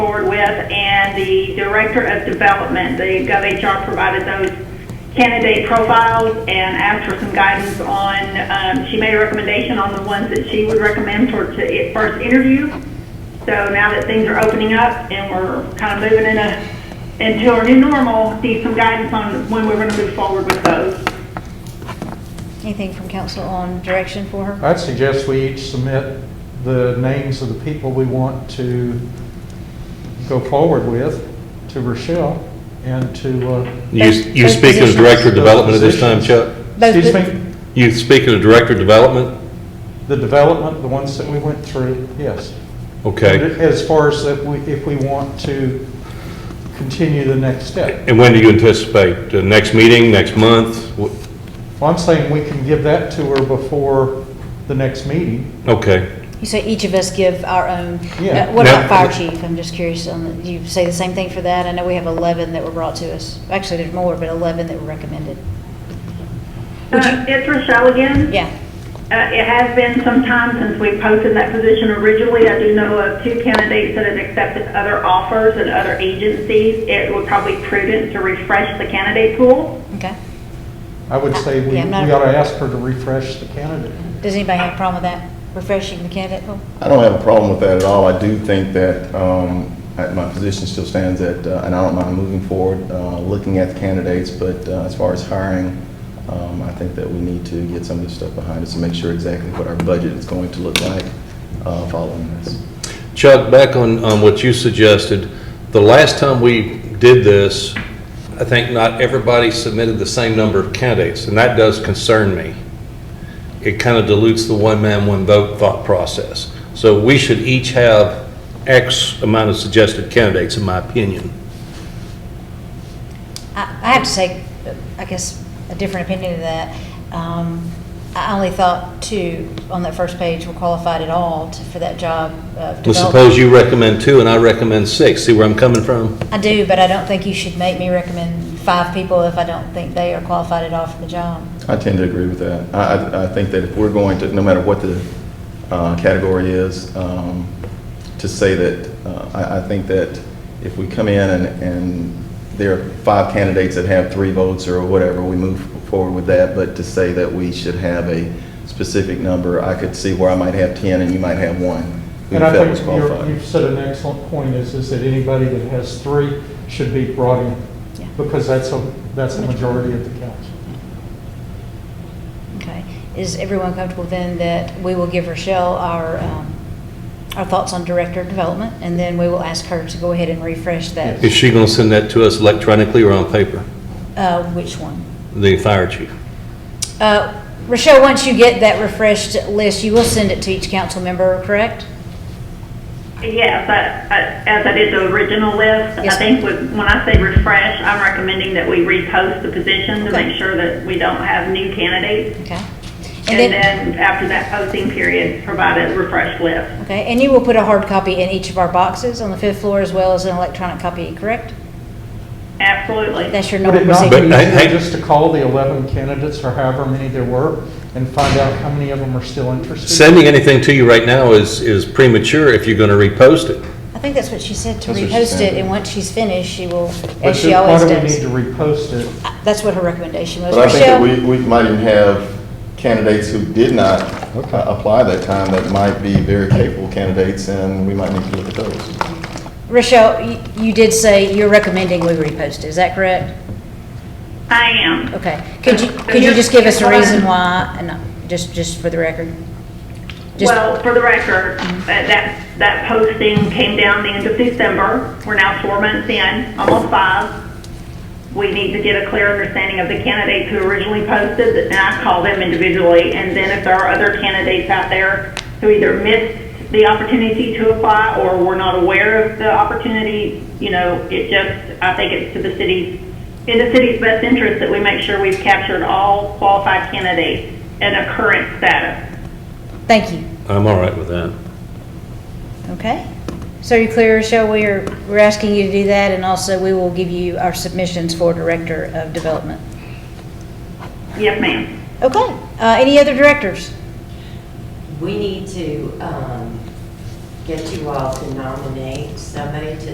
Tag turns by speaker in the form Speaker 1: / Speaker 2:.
Speaker 1: forward with, and the Director of Development, the GovHR provided those candidate profiles and asked for some guidance on, um, she made a recommendation on the ones that she would recommend for to it first interview. So now that things are opening up and we're kind of moving in a, into our new normal, need some guidance on when we're gonna move forward with those.
Speaker 2: Anything from council on direction for her?
Speaker 3: I'd suggest we each submit the names of the people we want to go forward with to Rochelle and to, uh,
Speaker 4: You, you
Speaker 2: Both
Speaker 4: speak as
Speaker 2: positions.
Speaker 4: Director of Development at this time, Chuck?
Speaker 2: Both
Speaker 3: excuse
Speaker 2: the-
Speaker 3: me,
Speaker 4: You speak as Director of Development?
Speaker 3: the development, the ones that we went through, yes.
Speaker 4: Okay.
Speaker 3: As far as if we, if we want to continue the next step.
Speaker 4: And when do you anticipate? The next meeting, next month? Wh-
Speaker 3: Well, I'm saying we can give that to her before the next meeting.
Speaker 4: Okay.
Speaker 2: You say each of us give our own.
Speaker 3: Yeah.
Speaker 2: Uh, What about
Speaker 4: Now-
Speaker 2: fire chief? I'm just curious on, the- do you say the same thing for that? I know we have 11 that were brought to us. Actually, there's more, but 11 that were recommended. Would you-
Speaker 1: Uh, It's Rochelle again.
Speaker 2: Yeah.
Speaker 1: Uh, It has been some time since we posted that position originally. I do know of two candidates that have accepted other offers and other agencies. It would probably be prudent to refresh the candidate pool.
Speaker 2: Okay.
Speaker 3: I would say we, we
Speaker 2: Yeah, I'm not-
Speaker 3: ought to ask her to refresh the candidate.
Speaker 2: Does anybody have a problem with that? Refreshing the candidate pool?
Speaker 5: I don't have a problem with that at all. I do think that um, I- my position still stands that, uh, and I don't mind moving forward, uh, looking at the candidates, but uh, as far as hiring, um, I think that we need to get some of this stuff behind us and make sure exactly what our budget is going to look like uh, following this.
Speaker 4: Chuck, back on, on what you suggested, the last time we did this, I think not everybody submitted the same number of candidates, and that does concern me. It kind of dilutes the one man, one vote thought process. So we should each have X amount of suggested candidates, in my opinion.
Speaker 2: I I have to say, uh, I guess, a different opinion of that. Um, I only thought two on that first page were qualified at all to- for that job of
Speaker 4: Well,
Speaker 2: development.
Speaker 4: suppose you recommend two and I recommend six. See where I'm coming from?
Speaker 2: I do, but I don't think you should make me recommend five people if I don't think they are qualified at all for the job.
Speaker 5: I tend to agree with that. I- I, I think that if we're going to, no matter what the uh, category is, um, to say that, uh, I, I think that if we come in and, and there are five candidates that have three votes or whatever, we move forward with that, but to say that we should have a specific number, I could see where I might have 10 and you might have one who
Speaker 3: And I
Speaker 5: felt was
Speaker 3: think you're-
Speaker 5: qualified.
Speaker 3: you've said an excellent point is, is that anybody that has three should be brought in.
Speaker 2: Yeah.
Speaker 3: Because that's a, that's a majority of the council.
Speaker 2: Okay. Is everyone comfortable then that we will give Rochelle our, um, our thoughts on director of development? And then we will ask her to go ahead and refresh that,
Speaker 4: Is she going to send that to us electronically or on paper?
Speaker 2: uh, which one?
Speaker 4: The fire chief?
Speaker 2: Uh, Rochelle, once you get that refreshed list, you will send it to each council member, correct?
Speaker 1: Yes, I- I- as I did the original list, I
Speaker 2: Yes,
Speaker 1: think with- when I say refresh, I'm recommending that we repost the position to
Speaker 2: Okay.
Speaker 1: make sure that we don't have new candidates.
Speaker 2: Okay.
Speaker 1: And then after that posting period, provide a refreshed list.
Speaker 2: Okay, and you will put a hard copy in each of our boxes on the fifth floor as well as an electronic copy, correct?
Speaker 1: Absolutely.
Speaker 2: That's your
Speaker 3: Would
Speaker 2: normal
Speaker 3: it not
Speaker 2: procedure.
Speaker 3: be
Speaker 4: But I- I-
Speaker 3: easier just to call the 11 candidates or however many there were and find out how many of them are still interested?
Speaker 4: Sending anything to you right now is, is premature if you're going to repost it.
Speaker 2: I think that's what she said, to
Speaker 5: That's what she
Speaker 2: repost it,
Speaker 5: said.
Speaker 2: and once she's finished, she will,
Speaker 3: But
Speaker 2: as she
Speaker 3: do-
Speaker 2: always
Speaker 3: Why do we need to
Speaker 2: does.
Speaker 3: repost it?
Speaker 2: That's what her recommendation was.
Speaker 5: But I think that
Speaker 2: Rochelle,
Speaker 5: we, we might even have candidates who did not uh, apply that time that might be very capable candidates, and we might need to look at those.
Speaker 2: Rochelle, y- you did say you're recommending we repost it, is that correct?
Speaker 1: I am.
Speaker 2: Okay, could you,
Speaker 1: So
Speaker 2: could you
Speaker 1: you're-
Speaker 2: just give us a
Speaker 1: what I'm-
Speaker 2: reason why, and not- just, just for the record? Just-
Speaker 1: Well, for the record, that, that- that posting came down the end of December. We're now four months in, almost five. We need to get a clear understanding of the candidates who originally posted, and I call them individually. And then if there are other candidates out there who either missed the opportunity to apply or were not aware of the opportunity, you know, it just, I think it's to the city's, in the city's best interest that we make sure we've captured all qualified candidates and a current status.
Speaker 2: Thank you,
Speaker 4: I'm all right with that.
Speaker 2: okay? So are you clear, Rochelle, we are, we're asking you to do that, and also we will give you our submissions for Director of Development.
Speaker 1: Yes, ma'am.
Speaker 2: Okay, uh, any other directors?
Speaker 6: We need to um, get you all to nominate somebody to